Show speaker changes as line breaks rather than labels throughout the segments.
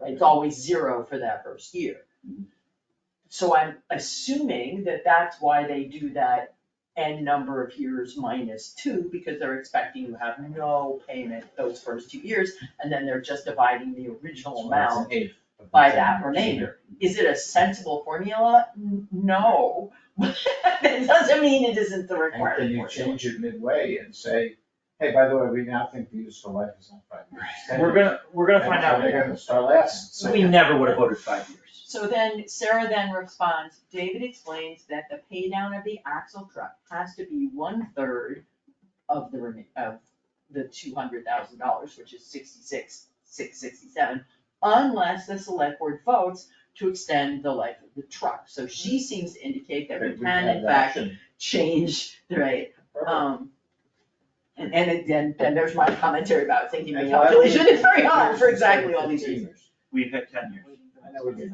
It's always zero for that first year. So I'm assuming that that's why they do that n number of years minus two, because they're expecting you have no payment those first two years, and then they're just dividing the original amount by that remainder. Is it a sensible formula? N- No, it doesn't mean it isn't the
And
required
can
formula.
you change it midway and say, hey, by the way, we now think the useful life is not five years. it's 10
We're
years."
gonna, we're gonna find
And
out.
They're gonna start last.
So We never would have voted five years.
So then Sarah then responds, David explains that the pay down of the axle truck
has to be one-third of the remain, of the two hundred thousand dollars, which is sixty-six, six sixty-seven, unless the select board votes to extend the life of the truck. So she seems to indicate that we can in fact change, right, um, and, and it- then, then there's my commentary about thinking the
And why would-
calculation is very hard for exactly all these reasons.
We've had ten years.
I know we did.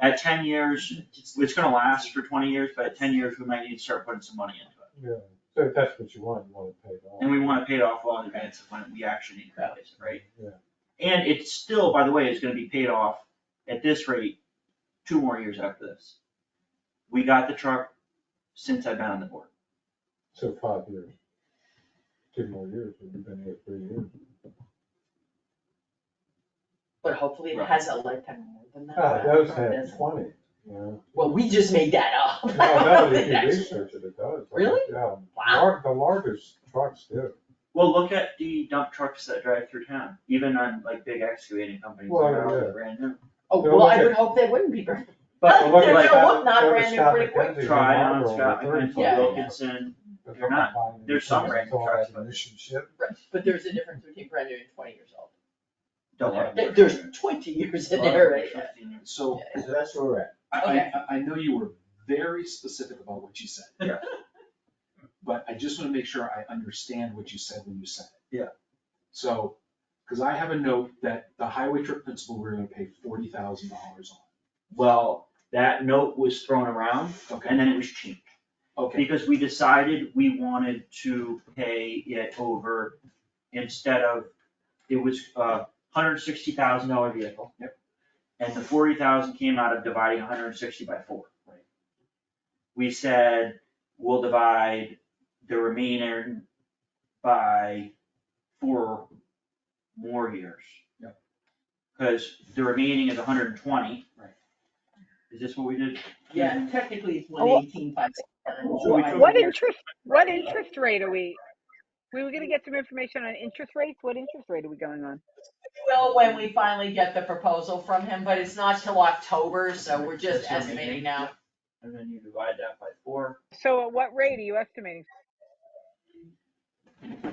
At ten years, it's gonna last for twenty years, but at ten years, we might need to start putting some money into it.
Yeah, so if that's what you want, you want it paid off.
And we wanna pay it off well in advance of when we actually need to pay it, right?
Yeah.
And it's still, by the way, is gonna be paid off at this rate, two more years after this. We got the truck since I've been on the board.
So five years. Two more years, we've been here three years.
But hopefully it
Right.
has a lifetime more than that.
Ah, those
Doesn't
have
it?
twenty, you know.
Well, we just made that up.
No, no, if you
That's-
research it, it does.
Really?
Yeah.
Wow.
Lar- The largest trucks do.
Well, look at the dump trucks that drive through town, even on like big excavating companies,
Well,
they're all
yeah.
brand new.
Oh,
They're
well, I
looking-
would hope they wouldn't be very.
But
They're
look
gonna
like-
look not brand new pretty quick.
Try on Scott McClintock, Wilkinson, they're not- there's some brand new trucks, but-
Mission ship.
Right, but there's a difference between brand new and twenty years old.
don't worry.
There- There's twenty years in there, right?
So
So that's where we're at.
I,
Okay.
I- I, I know you were very specific about what you said.
Yeah.
But I just wanna make sure I understand what you said when you said it.
Yeah.
So, cause I have a note that the highway trip principal, we're gonna pay forty thousand dollars
Well, that note was thrown around
on. Okay,
and then it was changed.
okay,
Because we decided we wanted to pay it over instead of, it was a hundred sixty thousand dollar vehicle. Yep. And the forty thousand came out of dividing hundred and sixty by four. Right. We said, we'll divide the remainder by four more years.
Yep.
Cause the remaining is hundred and twenty.
Right.
Is this what we did?
Yeah, technically it's one
Oh,
eighteen five sixty-seven.
So we took
What
the year-
interest, what interest rate are we, we were gonna get some information on interest rates, what interest rate are we going on?
Well, when we finally get the proposal from him, but it's not till October, so we're just
That's what I'm
estimating
thinking.
now.
And then you divide that by four.
So at what rate are you estimating?
I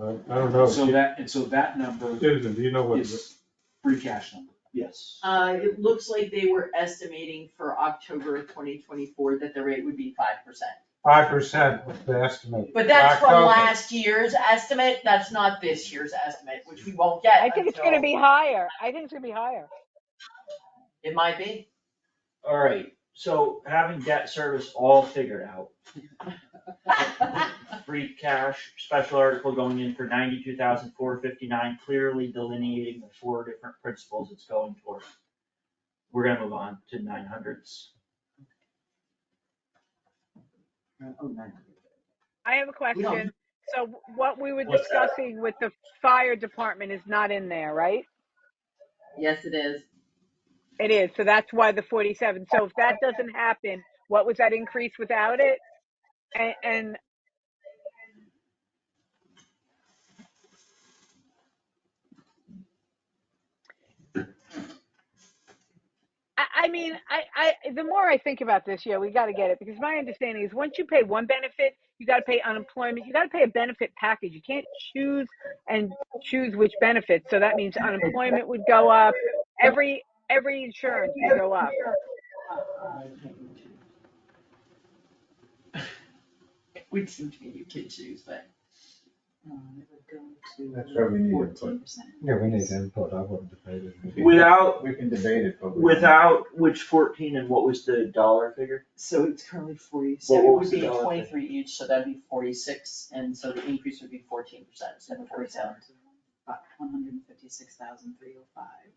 Uh, I don't know,
so that, and so that number
Susan, do you know what, the-
is free cash number.
Yes.
Uh, it looks like they were estimating for October of twenty twenty-four that the rate would be five percent.
five percent was the estimate.
But that's from
October.
last year's estimate, that's not this year's estimate, which we won't get
I think it's gonna
until-
be higher, I think it's gonna be higher.
It might be.
All right, so having debt service all figured out, free cash, special article going in for ninety-two thousand four fifty-nine, clearly delineating the four different principles it's going toward. We're gonna move on to nine hundreds.
I have a question, so what we were
What's that?
discussing with the fire department is not in there, right?
Yes, it is.
It is, so that's why the forty-seven, so if that doesn't happen, what was that increase without it? And, and I, I mean, I, I, the more I think about this, yeah, we gotta get it, because my understanding is, once you pay one benefit, you gotta pay unemployment, you gotta pay a benefit package, you can't choose and choose which benefits, so that means unemployment would go up, every, every insurance would go up.
We'd seem to be you kid shoes, but. um,
That's why we need input.
14%.
Yeah, we need input, I wouldn't debate it.
Without,
We can debate it, but. we-
without which fourteen and what was the dollar figure?
So it's currently forty,
Well,
so
what
it would
was the
be
dollar thing?
twenty-three each, so that'd be forty-six, and so the increase would be fourteen percent instead of forty-seven.
One hundred and fifty-six thousand three oh five.